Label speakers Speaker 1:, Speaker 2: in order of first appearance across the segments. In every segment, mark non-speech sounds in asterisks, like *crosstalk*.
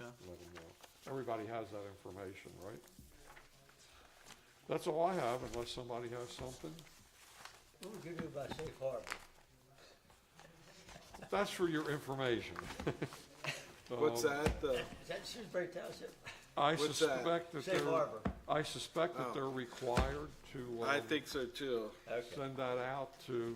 Speaker 1: let them know. Everybody has that information, right? That's all I have unless somebody has something.
Speaker 2: What would you do about safe harbor?
Speaker 1: That's for your information. *laughs*
Speaker 3: What's
Speaker 1: Um,
Speaker 3: that? The,
Speaker 2: Is that Shrewsbury Township?
Speaker 1: I
Speaker 3: What's that?
Speaker 1: suspect that
Speaker 2: Safe
Speaker 1: they're,
Speaker 2: harbor.
Speaker 1: I suspect that
Speaker 3: Oh.
Speaker 1: they're required to,
Speaker 3: I
Speaker 1: um,
Speaker 3: think so too.
Speaker 2: Okay,
Speaker 1: send that out to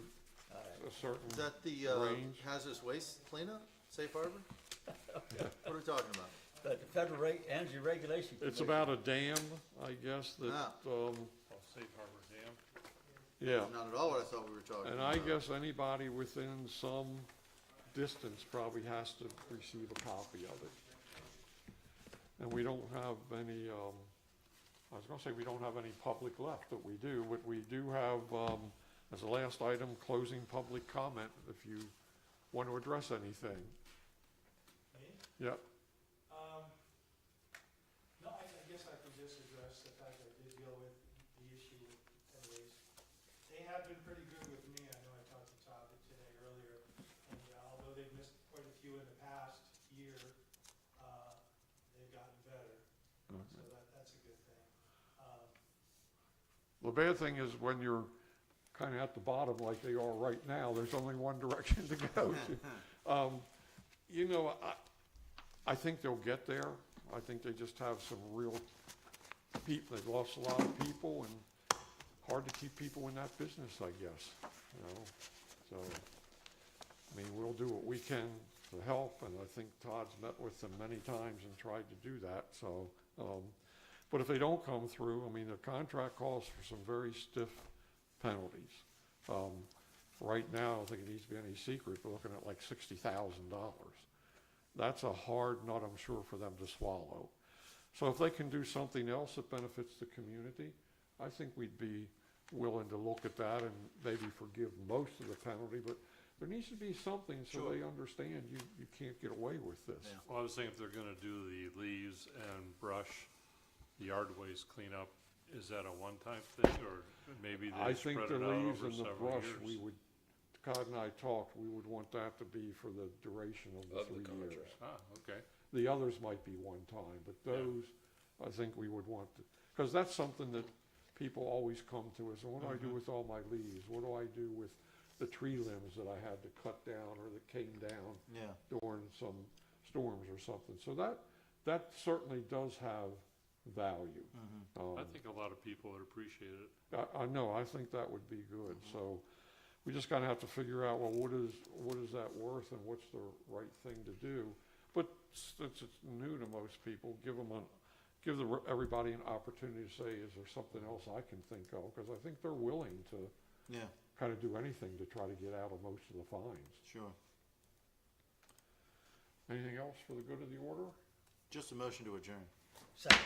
Speaker 2: all right.
Speaker 1: a certain.
Speaker 4: Is that the uh,
Speaker 1: Range.
Speaker 4: hazardous waste cleanup, safe harbor? What are we talking about?
Speaker 2: But the federal reg, energy regulation.
Speaker 1: It's
Speaker 2: Commission.
Speaker 1: about a dam, I guess, that,
Speaker 4: Ah.
Speaker 1: um.
Speaker 5: Oh, Safe Harbor Dam.
Speaker 1: Yeah,
Speaker 4: Not at all what I thought we were talking
Speaker 1: and
Speaker 4: about.
Speaker 1: I guess anybody within some distance probably has to receive a copy of it. And we don't have any, um, I was gonna say, we don't have any public left, but we do, but we do have, um, as a last item, closing public comment, if you want to address anything. Yep,
Speaker 6: Um, no, I, I guess I could just address the fact that I did deal with the issue with Ted Waze. They have been pretty good with me, I know I talked to Todd today earlier, and uh, although they've missed quite a few in the past year, uh, they've gotten better, so that, that's a good thing. Um,
Speaker 1: the bad thing is when you're kinda at the bottom like they are right now, there's only one direction to go to. Um, you know, I, I think they'll get there. I think they just have some real people, they've lost a lot of people and hard to keep people in that business, I guess, you know? So, I mean, we'll do what we can to help and I think Todd's met with them many times and tried to do that, so, um, but if they don't come through, I mean, the contract calls for some very stiff penalties. Um, right now, I don't think it needs to be any secret, we're looking at like sixty thousand dollars. That's a hard nut, I'm sure, for them to swallow. So if they can do something else that benefits the community, I think we'd be willing to look at that and maybe forgive most of the penalty, but there needs to be something so they understand you, you can't get away with this.
Speaker 5: Well, I was thinking if they're gonna do the leaves and brush, the yard waste cleanup, is that a one-time thing, or maybe
Speaker 1: I
Speaker 5: they spread
Speaker 1: think
Speaker 5: it out
Speaker 1: the leaves
Speaker 5: over
Speaker 1: and the
Speaker 5: several
Speaker 1: brush, we
Speaker 5: years?
Speaker 1: would, Todd and I talked, we would want that to be for the duration of the
Speaker 7: Of the
Speaker 1: three years.
Speaker 7: contract.
Speaker 5: Ah, okay,
Speaker 1: The others might be one time, but
Speaker 5: Yeah.
Speaker 1: those, I think we would want to, because that's something that people always come to us, and what do I do with all my leaves? What do I do with the tree limbs that I had to cut down or that came down
Speaker 4: Yeah,
Speaker 1: during some storms or something? So that, that certainly does have value.
Speaker 4: mm-hmm,
Speaker 1: Um,
Speaker 5: I think a lot of people would appreciate it.
Speaker 1: I, I know, I think that would be good, so we just kinda have to figure out, well, what is, what is that worth and what's the right thing to do? But since it's new to most people, give them a, give the, everybody an opportunity to say, is there something else I can think of? Cause I think they're willing to
Speaker 4: yeah,
Speaker 1: kinda do anything to try to get out of most of the fines.
Speaker 4: sure.
Speaker 1: Anything else for the good of the order?
Speaker 4: Just a motion to adjourn.
Speaker 2: Second,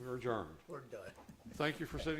Speaker 1: We're adjourned.
Speaker 2: we're done.
Speaker 1: Thank you for sitting